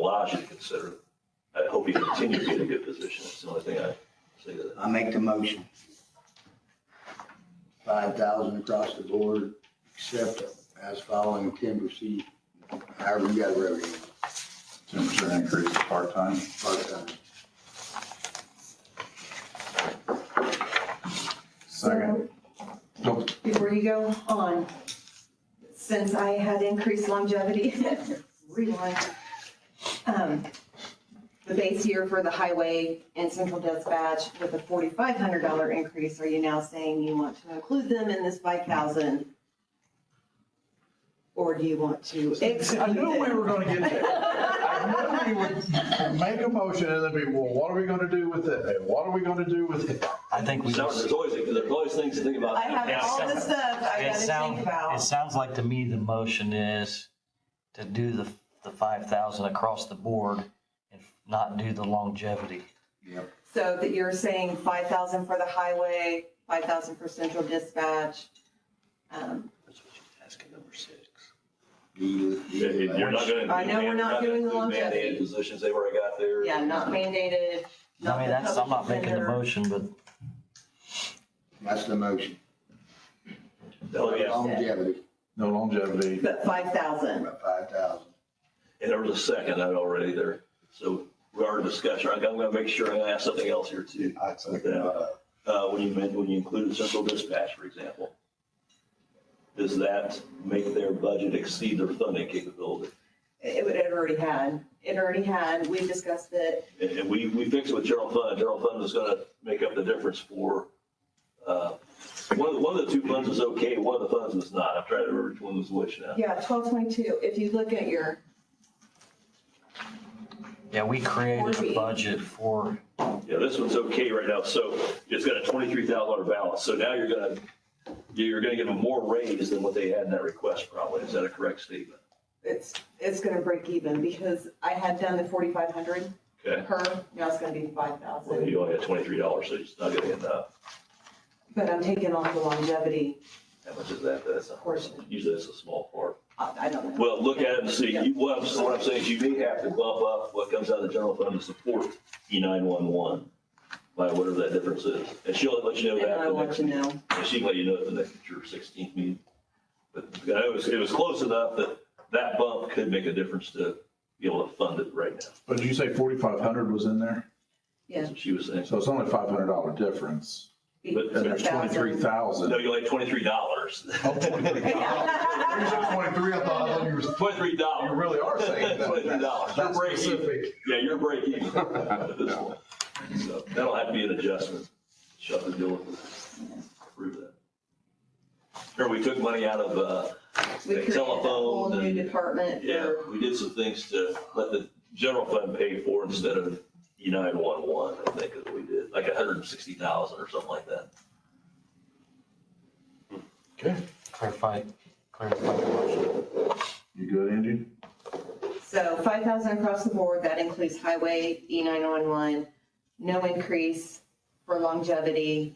Elijah to consider. I hope he continues to be in a good position. That's the only thing I say to that. I make the motion. Five thousand across the board, except as following timber seed, however you got revenue, Ten percent increase is part-time. part-time. Second. So, Before you go on, since I had increased longevity, rewind. um, The base year for the highway and central dispatch with a forty-five hundred dollar increase, are you now saying you want to include them in this five thousand? Or do you want to I exclude knew we them? were gonna get there. I knew we would make a motion and then be, well, what are we gonna do with it? And what are we gonna do with it? I think we, So There's it always, there's always things to think about. I have all the stuff I gotta think sounds, it about. sounds like to me the motion is to do the, the five thousand across the board and not do the longevity. Yep. So that you're saying five thousand for the highway, five thousand for central dispatch. um, You- Yeah, you- You're not gonna. I know we're not doing the Mandated longevity. Positions they've already got there. Yeah, not mandated. I not mean, the that's, I'm not public making the defender. motion, but That's the motion. Oh, yeah. Longevity, No longevity. But five thousand. about five thousand. And there was a second out already there. So we are in discussion. I'm gonna make sure I ask something else here too. I'd second that. Uh, when you, meant- when you include central dispatch, for example, does that make their budget exceed their funding capability? It would, it already had, it already had, we discussed it. And, and we, we fixed it with general fund. General fund is gonna make up the difference for, uh, one of, the- one of the two funds is okay, one of the funds is not. I'm trying to remember which one was which now. Yeah, twelve twenty-two, if you look at your, yeah, we created Forty. a budget for, Yeah, this one's okay right now, so it's got a twenty-three thousand dollar balance, so now you're gonna, you're gonna give them more raise than what they had in that request probably, is that a correct statement? it's, it's gonna break even because I had done the forty-five hundred Okay, per, now it's gonna be five well, thousand. you only had twenty-three dollars, so it's not gonna end up, But I'm taking off the longevity how much is that, that's a, portion. usually that's a small part. I I don't know. Well, look at it and see, you, what I'm, what I'm saying is you may have to bump up what comes out of the general fund to support E nine-one-one by whatever that difference is, and she'll let you know And that. I the want next to know. And she can let you know at the next, your sixteenth meeting. But it was, it was close enough that that bump could make a difference to be able to fund it right now. But did you say forty-five hundred was in there? Yeah. That's what she was saying. So it's only five hundred dollar difference. But And there's twenty-three thousand. No, you only twenty-three dollars. Oh, Twenty-three, I thought, I thought you were, Twenty-three dollars. you really are saying that. Twenty-three dollars. You're That's breaking, specific. yeah, you're breaking even with this one. So that'll have to be an adjustment. Shut the deal with it. Prove that. Remember, we took money out of, uh, We created a whole telephone new and- department Yeah, for, we did some things to let the general fund pay for instead of E nine one one, I think is what we did, like a hundred and sixty thousand or something like that. clarify, clarify the motion. You good, Angie? so five thousand across the board, that includes highway, E nine one one, no increase for longevity,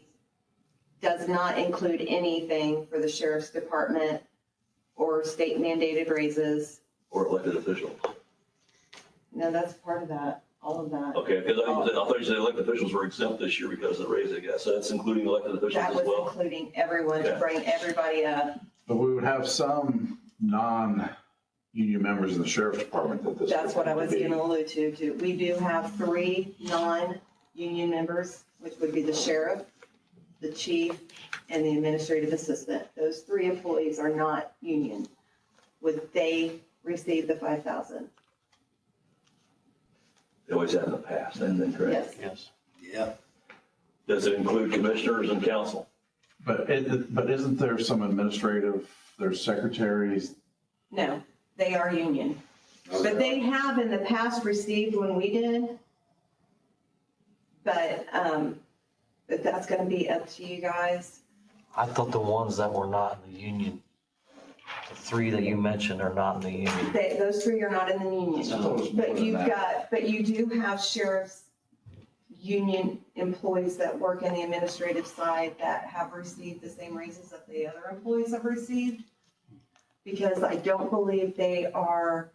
does not include anything for the sheriff's department or state mandated raises. Or elected officials. No, that's part of that, all of that. Okay, because I was- I thought you said elected officials were exempt this year because of the raise, I guess. So that's including elected officials That as was well. including everyone to Yeah. bring everybody up. But we would have some non-union members in the sheriff's department that this. That's what I would was be. gonna allude to, too. We do have three non-union members, which would be the sheriff, the chief, and the administrative assistant. Those three employees are not union. Would they receive the five thousand? They always have in the past, and then, correct? Yes. Yes. Yeah, Does it include commissioners and council? But it, but isn't there some administrative, there's secretaries? No, they are union. But they have in the past received when we did. But, um, but that's gonna be up to you guys. I thought the ones that were not in the union, the three that you mentioned are not in the union. They, those three are not in the I thought it was more union, but than you've that. got, but you do have sheriff's union employees that work in the administrative side that have received the same raises that the other employees have received. Because I don't believe they are